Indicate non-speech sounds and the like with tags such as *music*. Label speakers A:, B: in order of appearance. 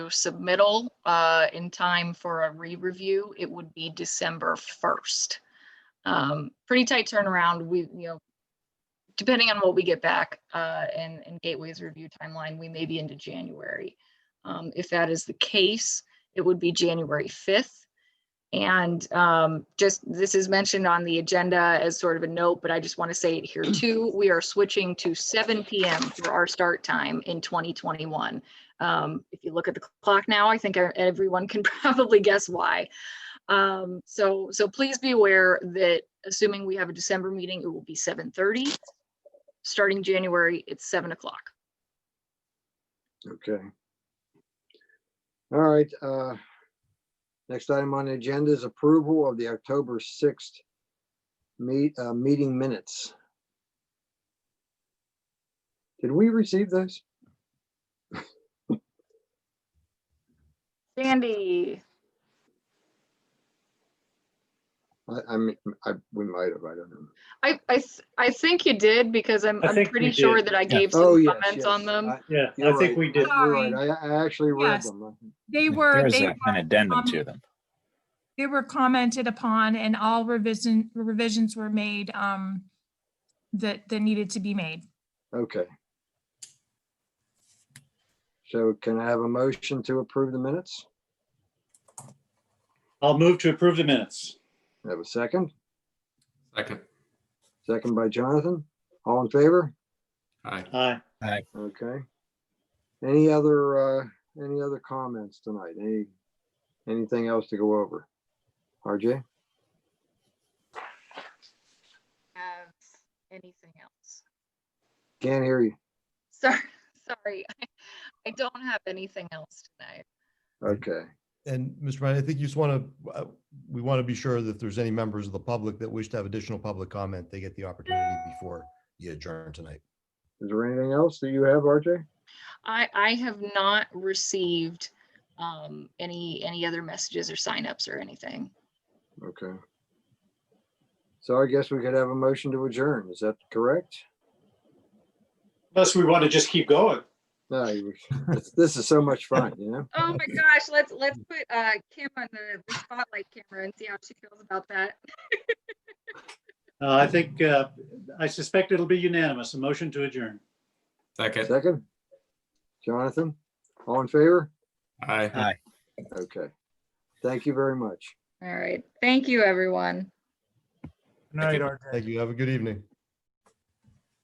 A: submittal uh, in time for a re-review, it would be December 1st. Um, Pretty tight turnaround. We, you know, depending on what we get back uh, and and Gateway's review timeline, we may be into January. Um, If that is the case, it would be January 5th. And um, just, this is mentioned on the agenda as sort of a note, but I just want to say it here too. We are switching to seven PM for our start time in 2021. Um, If you look at the clock now, I think e-, everyone can *laughs* probably guess why. Um, So, so please be aware that assuming we have a December meeting, it will be 7:30. Starting January, it's 7 o'clock.
B: Okay. All right, uh, next item on the agenda is approval of the October sixth meet, uh, meeting minutes. Did we receive those?
A: Sandy,
B: I, I mean, I, we might have, I don't know.
A: I, I, th- I think you did because I'm,
C: I
A: I'm
C: think
A: pretty
C: we
A: sure
C: did.
A: that I gave
B: Oh,
A: some
B: yes,
A: comments
B: yes,
A: on them.
B: I-
C: Yeah, I
B: you're
C: think
B: right.
C: we did.
B: You're right,
D: Sorry.
B: I, I actually read
D: Yes.
B: them.
D: They were,
E: There's
D: they
E: a- an
D: were,
E: addendum
D: um,
E: to them.
D: they were commented upon and all revision, revisions were made, um, that, that needed to be made.
B: Okay. So can I have a motion to approve the minutes?
C: I'll move to approve the minutes.
B: Have a second?
F: Second.
B: Second by Jonathan. All in favor?
F: Aye.
C: Aye.
B: Okay. Any other, uh, any other comments tonight? Any, anything else to go over? RJ?
A: Have anything else?
B: Can't hear you.
A: Sorry, *laughs* sorry. I don't have anything else tonight.
B: Okay.
G: And Mr. Ryan, I think you just want to, we want to be sure that if there's any members of the public that wish to have additional public comment, they get the opportunity before you adjourn tonight.
B: Is there anything else that you have, RJ?
A: I, I have not received um, any, any other messages or signups or anything.
B: Okay. So I guess we could have a motion to adjourn. Is that correct?
C: Unless we want to just keep going.
B: No, you- this- this is so much fun, you know?
A: Oh my gosh, let's, let's put uh, Kim on the the spotlight camera and see how she feels about that.
C: Uh, I think, uh, I suspect it'll be unanimous, a motion to adjourn.
F: Second.
B: Second? Jonathan? All in favor?
F: Aye.
B: Okay. Thank you very much.
A: All right. Thank you, everyone.
G: Night, Thank you. Have a good evening.